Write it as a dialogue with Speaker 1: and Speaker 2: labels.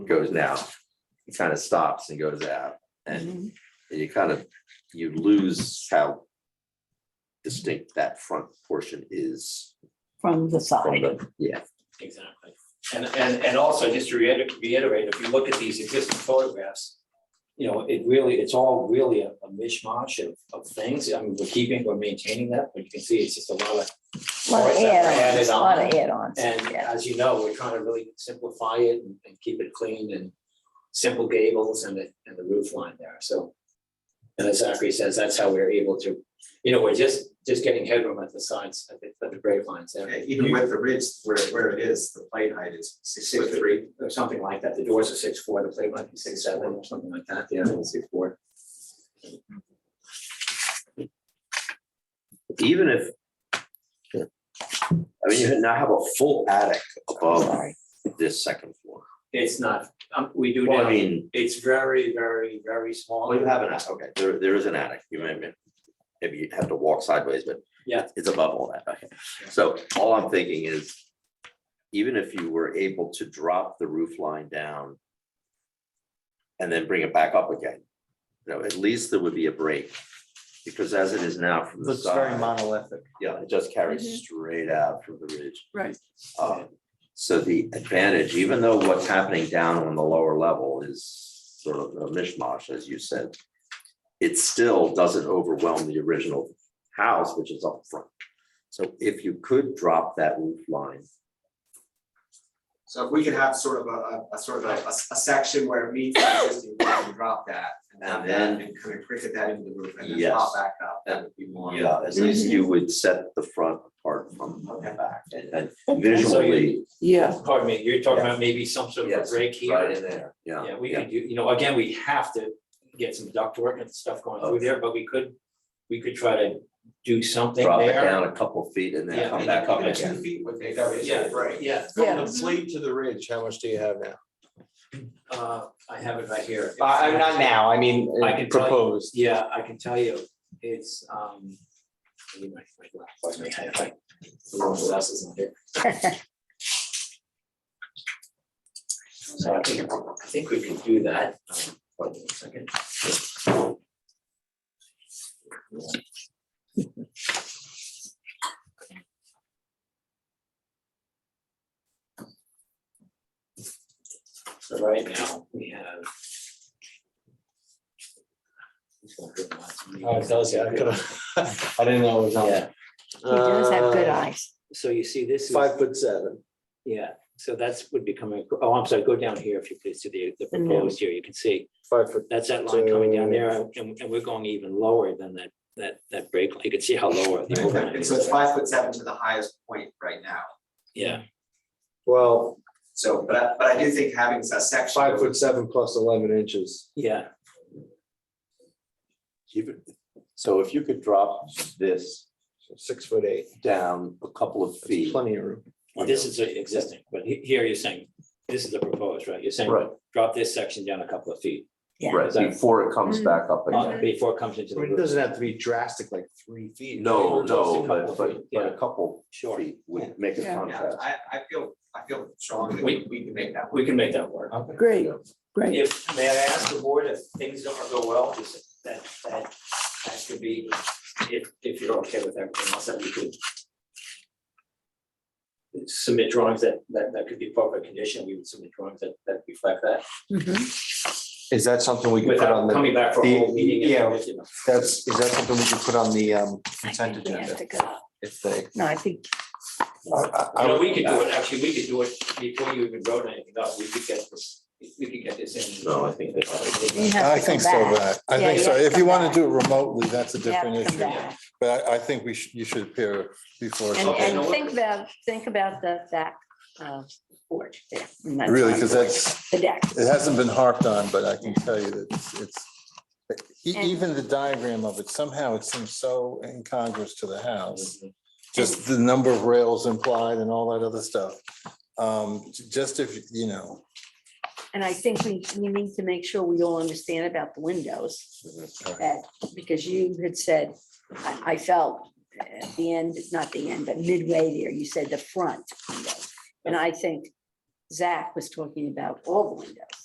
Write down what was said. Speaker 1: goes down. It kind of stops and goes out and you kind of, you lose how distinct that front portion is
Speaker 2: from
Speaker 1: from
Speaker 2: the side.
Speaker 1: the, yeah,
Speaker 3: Exactly. And, and, and also, just to reiter- reiterate, if you look at these existing photographs, you know, it really, it's all really a a mishmash of, of things. I mean, we're keeping, we're maintaining that, but you can see it's just a lot of.
Speaker 2: Lot of
Speaker 3: parts that were
Speaker 2: add-ons,
Speaker 3: added
Speaker 2: a lot of
Speaker 3: on.
Speaker 2: add-ons.
Speaker 3: And
Speaker 2: yeah.
Speaker 3: as you know, we're trying to really simplify it and, and keep it clean and simple gables and the, and the roof line there, so. And as Zachary says, that's how we're able to, you know, we're just, just getting headroom at the sides, at the, at the grade lines there.
Speaker 4: Okay, Even with the ridge where, where it is, the plate height is six
Speaker 3: six
Speaker 4: foot
Speaker 3: three or something like that. The doors are six four, the plate might be six seven or something like that. Yeah, six four.
Speaker 1: even if. I mean, you now have a full attic above
Speaker 2: Sorry.
Speaker 1: this second floor.
Speaker 3: It's not, um, we do
Speaker 1: Well,
Speaker 3: now,
Speaker 1: I mean,
Speaker 3: it's very, very, very small.
Speaker 1: well, you have an attic, okay, there, there is an attic, you may, may- maybe you have to walk sideways, but.
Speaker 3: Yeah.
Speaker 1: It's above all that, okay. So all I'm thinking is, even if you were able to drop the roof line down and then bring it back up again, you know, at least there would be a break. Because as it is now from the
Speaker 5: Looks very
Speaker 1: side,
Speaker 5: monolithic.
Speaker 1: yeah, it just
Speaker 2: Mhm.
Speaker 1: carries straight out from the ridge.
Speaker 2: Right.
Speaker 1: Um, So the advantage, even though what's happening down on the lower level is sort of a mishmash, as you said, it still doesn't overwhelm the original house, which is up front. So if you could drop that roof line,
Speaker 4: So if we could have sort of a, a- a sort of a, a s- a section where it meets the existing, we can drop that. And
Speaker 1: And
Speaker 4: have that
Speaker 1: then-
Speaker 4: and kind of cricket that into the roof and then
Speaker 1: Yes.
Speaker 4: pop back up, that would be more.
Speaker 1: yeah, uh, at least you would set the front apart from the back and and visually.
Speaker 2: Yeah.
Speaker 3: Pardon me, you're talking about maybe some sort of a
Speaker 1: Yes,
Speaker 3: break here.
Speaker 1: Right in there, yeah.
Speaker 3: Yeah, we could do, you know, again, we have to get some ductwork and stuff going through
Speaker 1: Okay.
Speaker 3: there, but we could, we could try to do something
Speaker 1: Drop it
Speaker 3: there.
Speaker 1: down a couple feet and
Speaker 3: Yeah,
Speaker 1: then come
Speaker 3: and
Speaker 1: back up
Speaker 3: then
Speaker 4: Two
Speaker 1: again.
Speaker 4: feet would make that
Speaker 3: Yeah,
Speaker 4: issue, right?
Speaker 3: Yeah,
Speaker 2: Yeah.
Speaker 5: fleet to the ridge, how much do you have now?
Speaker 3: uh, I have it right here.
Speaker 1: Uh,
Speaker 5: I'm not now, I mean,
Speaker 3: I can tell you-
Speaker 5: proposed.
Speaker 3: Yeah, I can tell you, it's, um. let me make my glass- pardon me, I- I- the wrong glass is not here. So I think, I think we can do that. um, Hold on a second. So right now, we have.
Speaker 5: Oh, it does, yeah, I could have, I didn't know it was on.
Speaker 3: Yeah.
Speaker 2: He does have good
Speaker 5: Uh,
Speaker 2: eyes.
Speaker 3: So you see, this is.
Speaker 5: Five foot seven.
Speaker 3: Yeah, so that's would be coming, ac- oh, I'm sorry, go down here if you please to the the
Speaker 2: The new.
Speaker 3: proposed here, you can see,
Speaker 5: Five foot.
Speaker 3: that's that line coming down
Speaker 5: So-
Speaker 3: there, and and we're going even lower than that that that break, line. you can see how lower the
Speaker 4: Okay,
Speaker 3: overhang
Speaker 4: and
Speaker 3: is.
Speaker 4: so it's five foot seven to the highest point right now.
Speaker 3: Yeah,
Speaker 5: Well,
Speaker 4: So, but I, but I do think having a section.
Speaker 5: five foot seven plus eleven inches.
Speaker 3: yeah,
Speaker 1: Even- So if you could drop this
Speaker 5: so Six foot eight,
Speaker 1: down a couple of
Speaker 5: That's
Speaker 1: feet.
Speaker 5: plenty of room.
Speaker 3: this is the existing, but he- here you're saying, this is the proposed, right, you're saying,
Speaker 1: Right.
Speaker 3: drop this section down a couple of feet
Speaker 2: Yeah.
Speaker 1: Right,
Speaker 3: So-
Speaker 1: before it comes
Speaker 2: Mm.
Speaker 1: back up
Speaker 3: uh,
Speaker 1: again.
Speaker 3: before it comes into
Speaker 5: I
Speaker 3: the
Speaker 5: mean, it
Speaker 3: roof,
Speaker 5: doesn't have to be drastic, like three feet.
Speaker 1: No,
Speaker 5: We're
Speaker 1: no,
Speaker 5: talking a
Speaker 1: but
Speaker 5: couple
Speaker 1: but
Speaker 5: feet.
Speaker 1: but a couple
Speaker 3: sure,
Speaker 1: feet would make a
Speaker 2: Yeah.
Speaker 4: Yeah,
Speaker 1: contrast.
Speaker 4: I, I feel, I feel strongly we,
Speaker 3: We-
Speaker 4: we can make that.
Speaker 3: we
Speaker 4: work.
Speaker 3: can make that work.
Speaker 5: Okay.
Speaker 2: Great, great.
Speaker 3: If, may I ask the board if things don't go well, just that, that, that could be, if, if you're okay with everything else, that we could submit drawings that, that, that could be proper condition, we would submit drawings that, that reflect that,
Speaker 2: Mhm.
Speaker 5: Is that something we could put on
Speaker 3: without
Speaker 5: the,
Speaker 3: coming back for a whole
Speaker 5: the-
Speaker 3: meeting. and
Speaker 5: yeah.
Speaker 3: everything else.
Speaker 5: that's, is that something we could put on the um,
Speaker 2: I
Speaker 5: consent
Speaker 2: think we have
Speaker 5: agenda?
Speaker 2: to go.
Speaker 5: If they.
Speaker 2: No, I think,
Speaker 3: You know, we could do it, actually, we could do it before you even wrote anything up, we could get this, we could get this in.
Speaker 1: No, I think
Speaker 2: you
Speaker 1: that-
Speaker 2: have to
Speaker 6: I
Speaker 2: come
Speaker 6: think so,
Speaker 2: back.
Speaker 6: but I
Speaker 2: Yeah,
Speaker 6: think so.
Speaker 2: yeah,
Speaker 6: If
Speaker 2: come
Speaker 6: you want
Speaker 2: back.
Speaker 6: to do it remotely, that's a
Speaker 2: You have
Speaker 6: different
Speaker 2: to come
Speaker 6: issue.
Speaker 2: back.
Speaker 6: But I, I think we should, you should appear before.
Speaker 2: And,
Speaker 6: something.
Speaker 2: and think about, think about the back uh, porch there. and that's
Speaker 6: Really,
Speaker 2: not
Speaker 6: because
Speaker 2: porch,
Speaker 6: that's,
Speaker 2: The deck.
Speaker 6: it hasn't been harped on, but I can tell you that it's- it's, e-
Speaker 2: And-
Speaker 6: even the diagram of it, somehow it seems so incongruous to the house. Just the number of rails implied and all that other stuff. Um, j- Just if, you know,
Speaker 2: And I think we, we need to make sure we all understand about the windows. That, because you had said, I, I felt at the end, not the end, but midway there, you said the front window. And I think Zach was talking about all the windows.